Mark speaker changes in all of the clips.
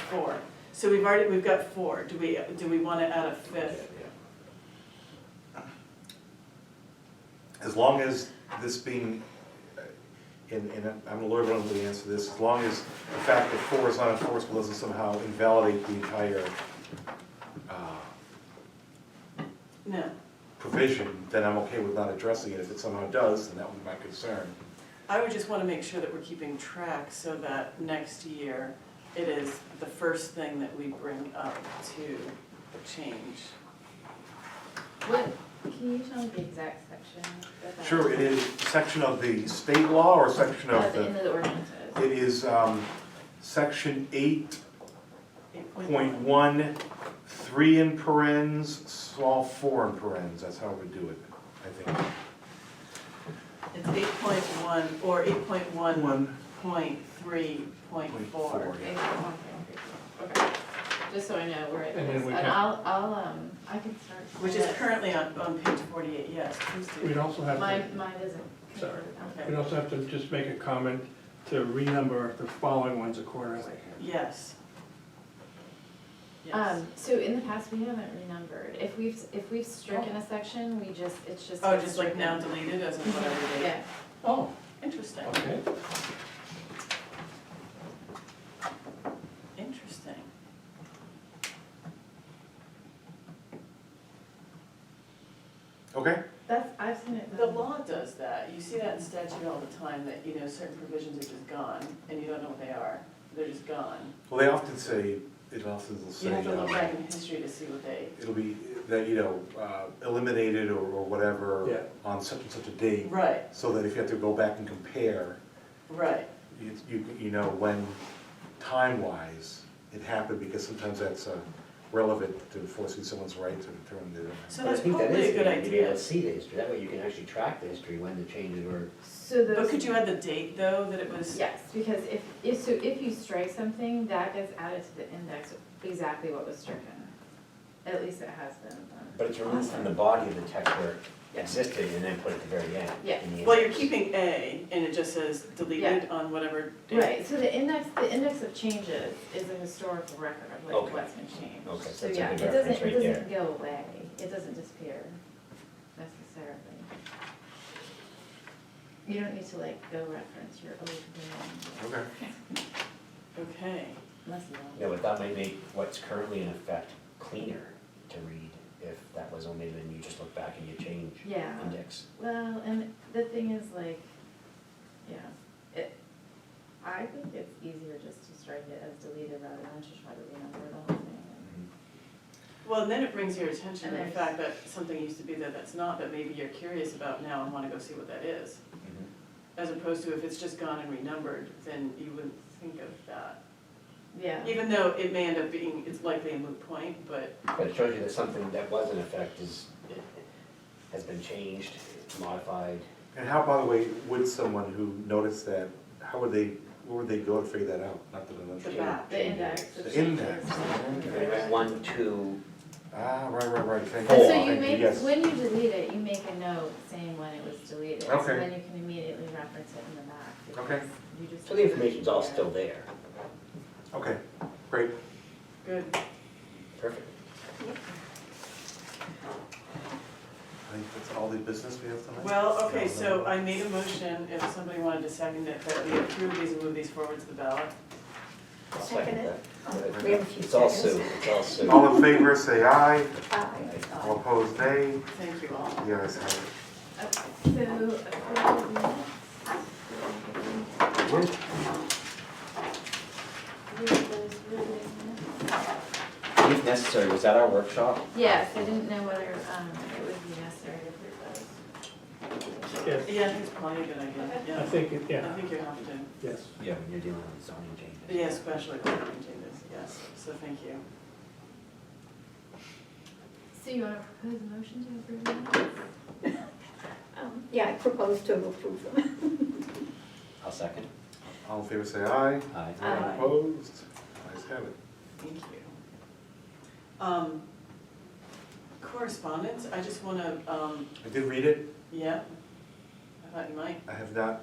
Speaker 1: four. So we've already, we've got four. Do we, do we wanna add a fifth?
Speaker 2: As long as this being, uh, and, and I'm a lawyer, but I don't really answer to this, as long as the fact that four is not enforceable doesn't somehow invalidate the entire, uh,
Speaker 1: No.
Speaker 2: provision, then I'm okay with not addressing it. If it somehow does, then that would be my concern.
Speaker 1: I would just wanna make sure that we're keeping track so that next year it is the first thing that we bring up to change.
Speaker 3: What, can you tell me the exact section? of that?
Speaker 2: Sure, it is section of the state law or section
Speaker 3: At
Speaker 2: of
Speaker 3: the end
Speaker 2: the,
Speaker 3: of the ordinances.
Speaker 2: it is, um, section eight
Speaker 1: Eight
Speaker 2: point one, three in parens, small four in parens, that's how we do it, I think.
Speaker 1: It's eight point one or eight point one
Speaker 2: One
Speaker 1: point three point
Speaker 2: point
Speaker 1: four.
Speaker 2: four,
Speaker 3: Okay,
Speaker 2: yeah.
Speaker 3: one, two, three, four. Okay. Just so I know where it
Speaker 4: And then
Speaker 3: is,
Speaker 4: we
Speaker 3: and
Speaker 4: have-
Speaker 3: I'll, I'll, um, I can start.
Speaker 1: Which is
Speaker 3: but
Speaker 1: currently on, on page forty-eight, yes, please
Speaker 4: We'd
Speaker 1: do.
Speaker 4: also have
Speaker 3: Mine,
Speaker 4: to,
Speaker 3: mine isn't.
Speaker 4: Sorry.
Speaker 1: Okay.
Speaker 4: we'd also have to just make a comment to renumber the following ones accordingly.
Speaker 1: Yes. Yes.
Speaker 3: Um, so in the past, we haven't renumbered, if we've, if we've stricken a section, we just, it's just.
Speaker 1: Oh, just like
Speaker 3: stricken.
Speaker 1: now deleted as in whatever date.
Speaker 3: Yeah,
Speaker 4: Oh,
Speaker 1: Interesting,
Speaker 4: okay.
Speaker 1: interesting.
Speaker 2: Okay,
Speaker 3: that's, I've seen it.
Speaker 1: The
Speaker 3: done.
Speaker 1: law does that, you see that in statute all the time, that, you know, certain provisions are just gone, and you don't know what they are, they're just gone.
Speaker 2: well, they often say, it often will
Speaker 1: You
Speaker 2: say,
Speaker 1: have to look
Speaker 2: um,
Speaker 1: back in history to see what they,
Speaker 2: it'll be, that, you know, uh, eliminated or, or
Speaker 4: Yeah.
Speaker 2: whatever on such and such a date,
Speaker 1: right,
Speaker 2: so that if you have to go back and compare,
Speaker 1: right,
Speaker 2: you, you you know, when time-wise it happened, because sometimes that's uh, relevant to enforcing someone's right to determine their.
Speaker 1: so
Speaker 5: But I
Speaker 1: that's
Speaker 5: think that
Speaker 1: probably
Speaker 5: is
Speaker 1: a good
Speaker 5: good to be able
Speaker 1: idea.
Speaker 5: to see the history, that way you can actually track the history, when the changes were.
Speaker 3: So those.
Speaker 1: But could you add the date, though, that it was?
Speaker 3: Yes, because if, if, so if you strike something, that gets added to the index of exactly what was stricken. At least it has been. um,
Speaker 5: But it's removed from the
Speaker 3: awesome.
Speaker 5: body of the text where it existed and then put at the very end.
Speaker 3: Yeah.
Speaker 5: in the
Speaker 1: Well, you're
Speaker 5: index.
Speaker 1: keeping A, and it just says deleted on whatever date.
Speaker 3: Right, so the index, the index of changes is a historical record of like
Speaker 5: Okay.
Speaker 3: what's been changed.
Speaker 5: Okay,
Speaker 3: So
Speaker 5: that's a
Speaker 3: yeah,
Speaker 5: good
Speaker 3: it doesn't,
Speaker 5: reference
Speaker 3: it
Speaker 5: right
Speaker 3: doesn't go away, it doesn't disappear necessarily. You don't need to like go reference your old one,
Speaker 2: Okay.
Speaker 1: Okay,
Speaker 3: unless you
Speaker 5: Yeah,
Speaker 3: want.
Speaker 5: but that might make what's currently in effect cleaner to read if that was omitted and you just look back and you change
Speaker 3: Yeah.
Speaker 5: index.
Speaker 3: Well, and the thing is like, yeah, it, I think it's easier just to strike it as deleted rather than to try to renumber the whole thing.
Speaker 5: Mm-hmm.
Speaker 1: well, and then it brings your attention to the
Speaker 3: And there's-
Speaker 1: fact that something used to be there that's not, that maybe you're curious about now and wanna go see what that is. As opposed to if it's just gone and renumbered, then you wouldn't think of that.
Speaker 3: Yeah,
Speaker 1: Even though it may end up being, it's likely a moot point, but,
Speaker 5: But it shows you that something that was in effect is, has been changed, modified.
Speaker 2: And how, by the way, would someone who noticed that, how would they, where would they go to figure that out? Not that I
Speaker 1: The
Speaker 2: know.
Speaker 1: back.
Speaker 3: the index of
Speaker 2: The
Speaker 3: changes.
Speaker 2: index,
Speaker 5: Anyway, One, two,
Speaker 2: Ah, right, right, right, thank you.
Speaker 3: And so
Speaker 5: Four.
Speaker 3: you
Speaker 2: Thank
Speaker 3: make,
Speaker 2: yes.
Speaker 3: when you delete it, you make a note saying when it was deleted, so
Speaker 2: Okay.
Speaker 3: then you can immediately reference it in the back.
Speaker 2: Okay.
Speaker 3: because you just-
Speaker 5: so the information's all still there.
Speaker 2: Okay, great.
Speaker 1: good.
Speaker 5: Perfect.
Speaker 2: I think that's all the business we have tonight.
Speaker 1: Well, okay, so I made a motion, if somebody wanted to second it, that we approve these and move these forward to the ballot.
Speaker 5: I'll
Speaker 6: Second
Speaker 5: second
Speaker 6: it.
Speaker 5: that.
Speaker 6: We have a few
Speaker 5: It's all Sue,
Speaker 6: seconds.
Speaker 5: it's all Sue.
Speaker 2: All in favor, say aye.
Speaker 6: Aye.
Speaker 2: All opposed, nay.
Speaker 1: Thank you all.
Speaker 2: The ayes have it.
Speaker 3: Okay, So, approve the minutes. Read those, read those minutes.
Speaker 5: If necessary, was that our workshop?
Speaker 3: Yes, I didn't know whether, um, it would be necessary to approve those.
Speaker 4: Yes,
Speaker 1: Yeah, I think it's probably a good idea,
Speaker 4: I
Speaker 1: yeah.
Speaker 4: think, it-
Speaker 1: I
Speaker 4: yeah,
Speaker 1: think you have to,
Speaker 4: yes.
Speaker 5: Yeah, when you're dealing with zoning changes.
Speaker 1: yeah, especially when you do this, yes, so thank you.
Speaker 3: So you wanna propose a motion to approve the minutes?
Speaker 6: Um, Yeah, I propose to approve them.
Speaker 5: I'll second.
Speaker 2: All in favor, say aye.
Speaker 5: Aye.
Speaker 2: All
Speaker 3: Aye.
Speaker 2: Opposed, ayes have it.
Speaker 1: Thank you. Um, Correspondence, I just wanna, um,
Speaker 2: I did read it.
Speaker 1: yeah, I thought you might.
Speaker 2: I have not.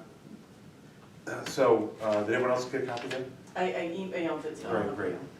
Speaker 2: Uh, So, uh, did everyone else get a copy then?
Speaker 1: I, I emailed it to all
Speaker 2: Great,
Speaker 1: of
Speaker 2: great.
Speaker 1: you.